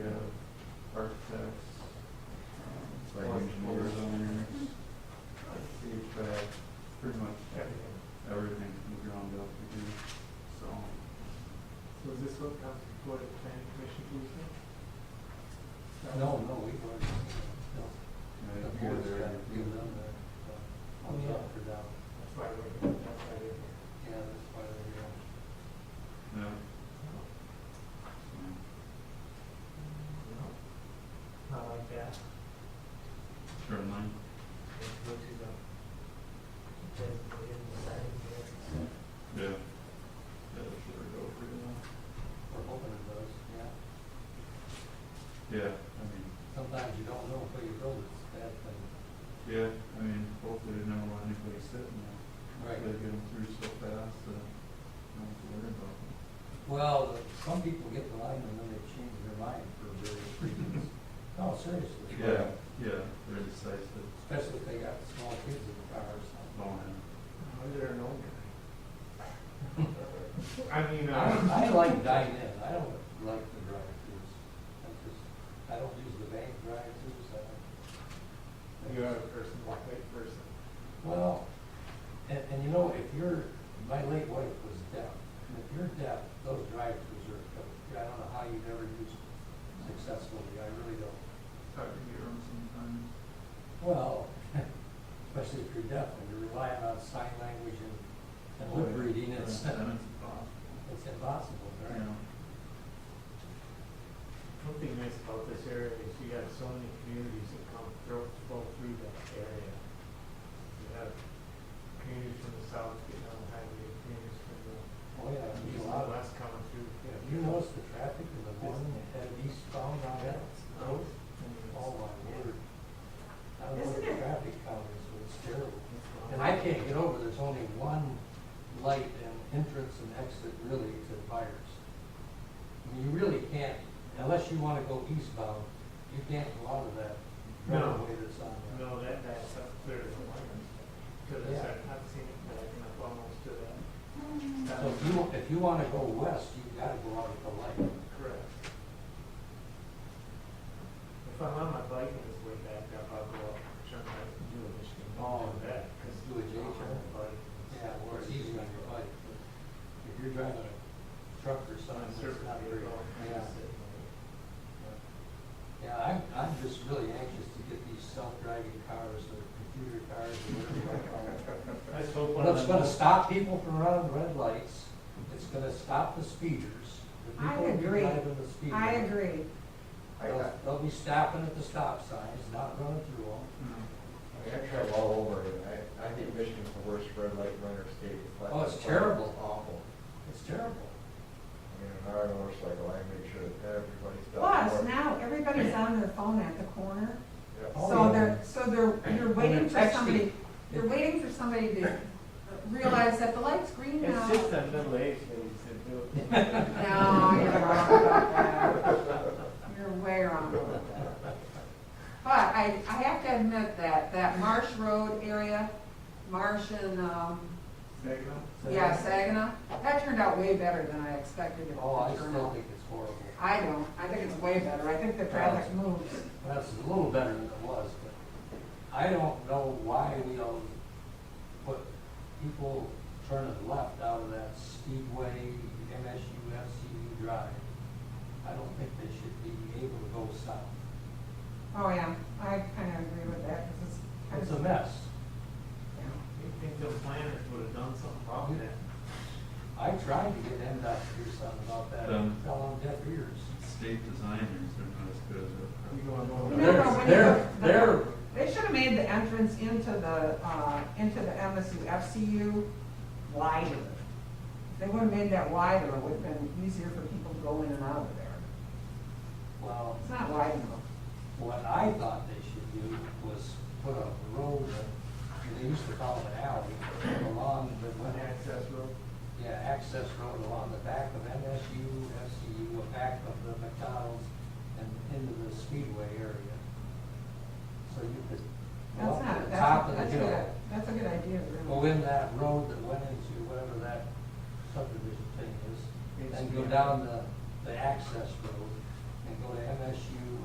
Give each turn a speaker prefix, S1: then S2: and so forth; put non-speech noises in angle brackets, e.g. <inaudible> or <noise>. S1: No, no, we've already, no. The
S2: Right here,
S1: board's
S2: there.
S1: got to give them that, uh,
S3: Oh, yeah.
S1: up or down.
S3: That's why we're, that's why we're here.
S1: Yeah, that's why they're here.
S2: No.
S3: No. Not like that.
S2: Turn line.
S3: It's way too low. It doesn't go in the side of the air.
S2: Yeah. That should go pretty well.
S1: We're hoping it does, yeah.
S2: Yeah, I mean,
S1: Sometimes you don't know until you build it, it's a bad thing.
S2: yeah, I mean, hopefully they never let anybody sit in there. They get them through so fast, uh, don't have to worry about them.
S1: Well, some people get the line and then they change their mind for various reasons. No, seriously.
S2: Yeah, yeah, they're decisive,
S1: Especially if they got small kids in the car or something.
S2: long hand.
S3: I'm there an old guy. <laughs> I mean, uh,
S1: I, I like dine in, I don't like the drive-throughs. I just, I don't use the bank drive-throughs, I don't.
S3: you're a person, like that person.
S1: Well, and, and you know, if you're, my late wife was deaf, and if you're deaf, those drive-throughs are, I don't know how you've ever used them successfully, I really don't.
S2: Talk to your own sometimes.
S1: Well, <laughs> especially if you're deaf and you're relying on sign language and, and lip reading,
S2: Oh, Yeah,
S1: <laughs> it's,
S2: Then it's possible,
S1: it's impossible,
S2: you
S1: right?
S2: know.
S3: One thing nice about this area is you have so many communities that come through, flow through that area. You have communities from the south getting on the highway, communities from the
S1: Oh, yeah,
S3: east
S1: there's a
S3: and
S1: lot of,
S3: west coming through.
S1: yeah, if you notice the traffic in the morning, that eastbound on that road, oh my word. I don't know what the
S4: Isn't it-
S1: traffic count is, but it's terrible. And I can't get over, there's only one light and entrance and exit really to buyers. I mean, you really can't, unless you wanna go eastbound, you can't go out of that
S3: No.
S1: driveway that's on there.
S3: No, that, that's up clear as a line. To the
S1: Yeah.
S3: side, I've seen it, but I can up almost to that.
S1: So if you, if you wanna go west, you've gotta go out at the light.
S3: Correct. If I'm on my bike and it's way back up, I'll go up, turn right, and do a Michigan.
S1: Oh,
S3: that,
S1: let's
S3: because
S1: do a J
S3: I'm on
S1: turn.
S3: my bike.
S1: Yeah, well, it's easy on your bike, but if you're driving a truck or
S3: So
S1: something,
S3: I'm
S1: it's
S3: certainly
S1: not
S3: very
S1: very,
S3: well.
S1: yeah. Yeah, I'm, I'm just really anxious to get these self-driving cars or computer cars or whatever you wanna call them.
S3: Let's hope one
S1: But
S3: of
S1: it's
S3: them.
S1: gonna stop people from running red lights, it's gonna stop the speeders. The
S4: I
S1: people who
S4: agree.
S1: drive in the speed
S4: I
S1: limit,
S4: agree.
S5: I,
S1: They'll,
S5: I
S1: they'll be stopping at the stop signs, not running through them.
S5: I travel all over, and I, I think Michigan's the worst red light runner state. It's
S1: Oh, it's terrible.
S5: It's Awful.
S1: It's terrible.
S5: I mean, if I ride a motorcycle, I make sure that everybody's. got
S4: Plus,
S5: more-
S4: now everybody's on their phone at the corner,
S5: Yeah.
S1: Oh,
S4: so
S1: yeah.
S4: they're, so they're, you're waiting for
S1: texting.
S4: somebody, you're waiting for somebody to realize that the light's green now.
S3: It's
S4: No,
S3: just the middle-aged ladies that do it.
S1: <laughs>
S4: you're wrong about that. You're way wrong about that. But I, I have to admit that, that Marsh Road area, Marsh and, um,
S2: Second?
S4: yeah, Saginaw, that turned out way better than I expected it
S1: Oh, I
S4: to turn
S1: still
S4: out.
S1: think it's horrible.
S4: I don't, I think it's way better, I think the traffic moves.
S1: Well, it's a little better than it was, but I don't know why we don't put people turning left out of that Speedway, MSU, FCU drive. I don't think they should be able to go south.
S4: Oh, yeah, I kind of agree with that, because it's.
S1: It's a mess.
S4: Yeah.
S3: You think the planners would have done something about that?
S1: I tried to get MDOT to do something about that,
S2: Um.
S1: fell on deaf ears.
S2: State designers, they're not as good as our.
S3: You going over?
S4: No, no, when you-
S1: They're, they're,
S4: They should have made the entrance into the, uh, into the MSU FCU wider. If they would have made that wider, it would have been easier for people to go in and out of there.
S1: well,
S4: It's not wide enough.
S1: What I thought they should do was put a road, and they used to call it an alley, along the,
S3: On access road?
S1: yeah, access road along the back of MSU, FCU, the back of the McDonald's,